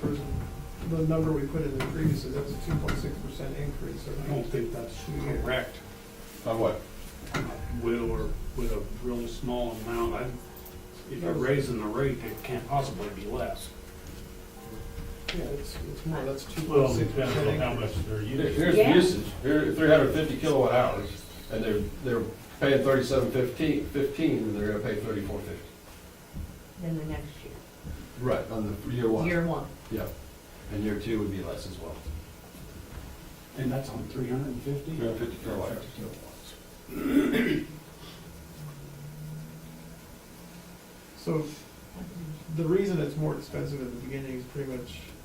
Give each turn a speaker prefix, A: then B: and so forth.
A: the number we put in there previously, that was a two point six percent increase, and I don't think that's fair.
B: Correct.
C: Of what?
B: With, or with a real small amount, I, if you're raising the rate, it can't possibly be less.
A: Yeah, it's, it's more, that's two
D: Well,
A: point
D: it
A: six
D: depends on how
A: percent.
D: much they're
C: Here-
D: using.
C: Here's the
E: Yeah.
C: usage, here, three hundred fifty kilowatt hours, and they're, they're paying thirty-seven fifteen, fifteen, and they're gonna pay thirty-four fifty.
E: than the next year,
C: Right, on the year one.
E: year one.
C: Yeah, and year two would be less as well.
B: And that's on three hundred and fifty?
C: Three hundred fifty kilowatt hours.
A: So the reason it's more expensive at the beginning is pretty much